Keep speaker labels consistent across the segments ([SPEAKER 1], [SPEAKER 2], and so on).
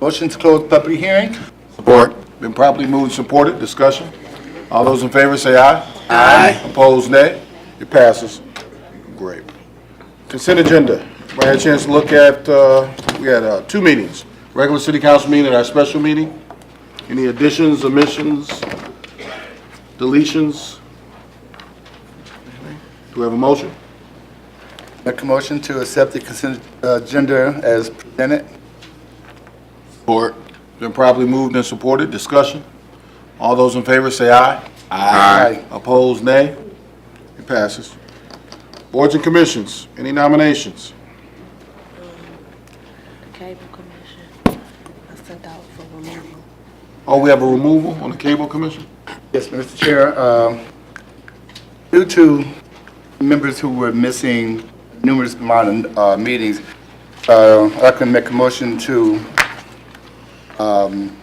[SPEAKER 1] Motion to close public hearing?
[SPEAKER 2] Support.
[SPEAKER 1] Been properly moved and supported, discussion. All those in favor say aye. Aye. Opposed, nay. It passes. Great. Consent agenda. We had a chance to look at, uh, we had uh, two meetings, regular city council meeting and our special meeting. Any additions, omissions, deletions? Do we have a motion?
[SPEAKER 2] Make a motion to accept the consent agenda as presented.
[SPEAKER 1] Support. Been properly moved and supported, discussion. All those in favor say aye.
[SPEAKER 2] Aye.
[SPEAKER 1] Opposed, nay. It passes. Boards and commissions, any nominations?
[SPEAKER 3] Cable commission, I sent out for removal.
[SPEAKER 1] Oh, we have a removal on the cable commission?
[SPEAKER 2] Yes, Mr. Chair, um, due to members who were missing numerous amount of uh, meetings, uh, I can make a motion to um,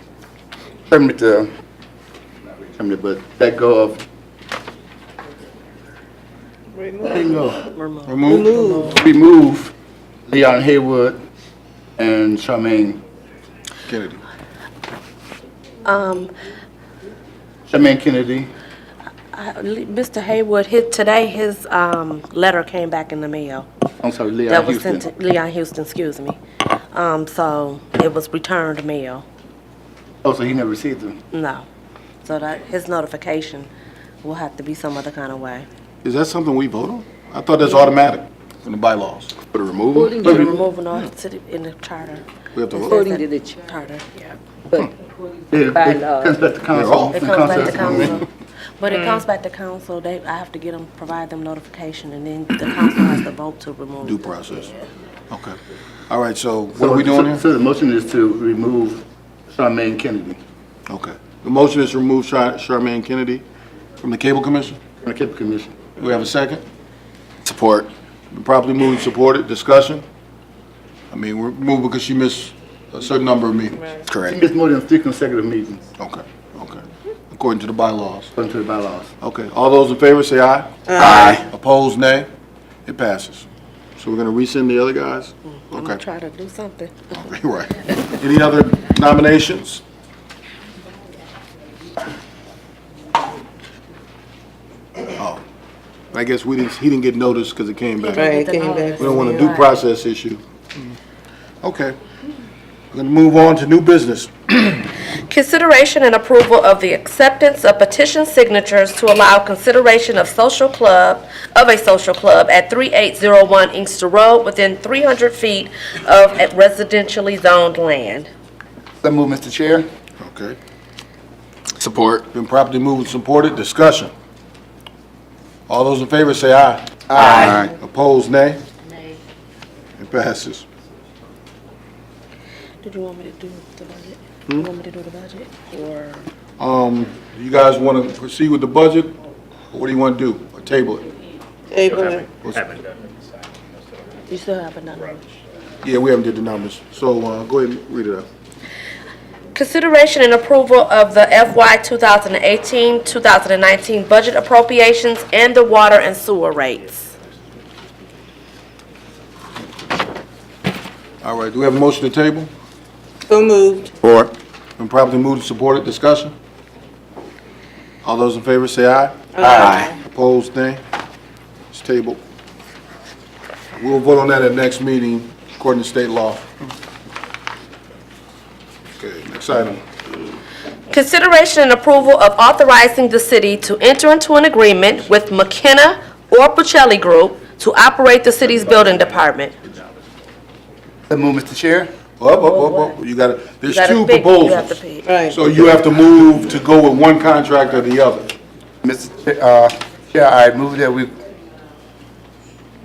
[SPEAKER 2] terminate the, not really terminate, but let go of,
[SPEAKER 1] Remove?
[SPEAKER 2] remove Leon Haywood and Charmaine,
[SPEAKER 1] Kennedy.
[SPEAKER 2] Charmaine Kennedy.
[SPEAKER 3] I- Mr. Haywood, his, today his, um, letter came back in the mail.
[SPEAKER 2] I'm sorry, Leon
[SPEAKER 3] That was sent to
[SPEAKER 2] Houston.
[SPEAKER 3] Leon Houston, excuse me. Um, so it was returned mail,
[SPEAKER 2] Oh, so he never received them.
[SPEAKER 3] no. So that, his notification will have to be some other kind of way.
[SPEAKER 1] Is that something we vote on? I thought that's automatic in the bylaws.
[SPEAKER 2] For the removal?
[SPEAKER 3] The removal of the city in the charter.
[SPEAKER 1] We have to vote.
[SPEAKER 4] According to the charter,
[SPEAKER 3] Charter, yeah.
[SPEAKER 4] but
[SPEAKER 2] Yeah, it
[SPEAKER 4] Bylaw.
[SPEAKER 2] comes back to council.
[SPEAKER 1] off.
[SPEAKER 3] uh, It
[SPEAKER 2] The
[SPEAKER 3] comes back to
[SPEAKER 2] council has
[SPEAKER 3] council. But it comes back to council, they, I have to get them, provide them notification, and then the council has to vote to remove.
[SPEAKER 1] Due
[SPEAKER 3] them.
[SPEAKER 1] process. Okay. All right, so what are we doing here?
[SPEAKER 2] So the motion is to remove Charmaine Kennedy
[SPEAKER 1] Okay. The motion is to remove Char- Charmaine Kennedy from the cable commission?
[SPEAKER 2] from the Cable Commission.
[SPEAKER 1] Do we have a second? Support. Been properly moved and supported, discussion? I mean, we're moved because she missed a certain number of meetings.
[SPEAKER 2] She missed more than three consecutive meetings
[SPEAKER 1] Okay, okay. According to the bylaws.
[SPEAKER 2] according to the bylaws.
[SPEAKER 1] Okay, all those in favor say aye. Aye. Opposed, nay. It passes. So we're gonna rescind the other guys?
[SPEAKER 3] I'm gonna
[SPEAKER 1] Okay,
[SPEAKER 3] try to do something.
[SPEAKER 1] right. Any other nominations? Oh, I guess we didn't, he didn't get noticed because it came back.
[SPEAKER 5] Right, came back.
[SPEAKER 1] We don't want a due process issue. Mm. Okay. We're going to move on to new business.
[SPEAKER 3] Consideration and approval of the acceptance of petition signatures to allow consideration of social club, of a social club at 3801 Inkster Road within 300 feet of residentially zoned land.
[SPEAKER 2] So move, Mr. Chair.
[SPEAKER 1] Okay. Support. Been properly moved and supported. Discussion. All those in favor say aye. Aye. Opposed, nay? Nay. It passes.
[SPEAKER 3] Did you want me to do the budget?
[SPEAKER 1] Hmm?
[SPEAKER 3] You want me to do the budget, or?
[SPEAKER 1] Um, do you guys want to proceed with the budget? Or what do you want to do? Or table it?
[SPEAKER 5] Table it.
[SPEAKER 3] You still have another?
[SPEAKER 1] Yeah, we haven't did the numbers. So, uh, go ahead and read it out.
[SPEAKER 3] Consideration and approval of the FY 2018-2019 budget appropriations and the water and sewer rates.
[SPEAKER 1] All right, do we have a motion to table?
[SPEAKER 5] So moved.
[SPEAKER 1] Four. Been properly moved and supported, discussion? All those in favor say aye. Aye. Opposed, nay. It's tabled. We'll vote on that at next meeting, according to state law. Okay, next item.
[SPEAKER 3] Consideration and approval of authorizing the city to enter into an agreement with McKenna or Pacelli Group to operate the city's building department.
[SPEAKER 2] So move, Mr. Chair.
[SPEAKER 1] Up, up, up, up, you gotta, there's
[SPEAKER 3] Gotta
[SPEAKER 1] two
[SPEAKER 3] pick, you have to
[SPEAKER 1] proposals.
[SPEAKER 3] pick.
[SPEAKER 5] Right.
[SPEAKER 1] So you have to move to go with one contract or the other.
[SPEAKER 2] Mr. Chair, uh, Chair, I move that we,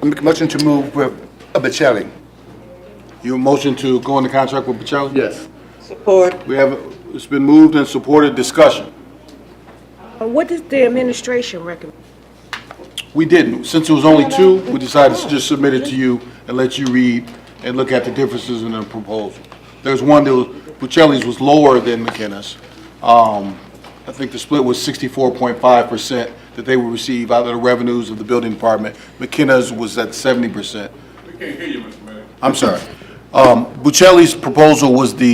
[SPEAKER 2] I make a motion to move with Bochelli.
[SPEAKER 1] Your motion to go into contract with Pacelli?
[SPEAKER 2] Yes.
[SPEAKER 5] Support.
[SPEAKER 1] We have, it's been moved and supported, discussion?
[SPEAKER 6] What does the administration recommend?
[SPEAKER 1] We didn't. Since it was only two, we decided to just submit it to you and let you read and look at the differences in the proposal. There's one that was, Bucelli's was lower than McKenna's. Um, I think the split was sixty-four point five percent that they would receive out of the revenues of the building department. McKenna's was at seventy percent. We can't hear you, Mr. Mayor. I'm sorry. Um, Bucelli's proposal was the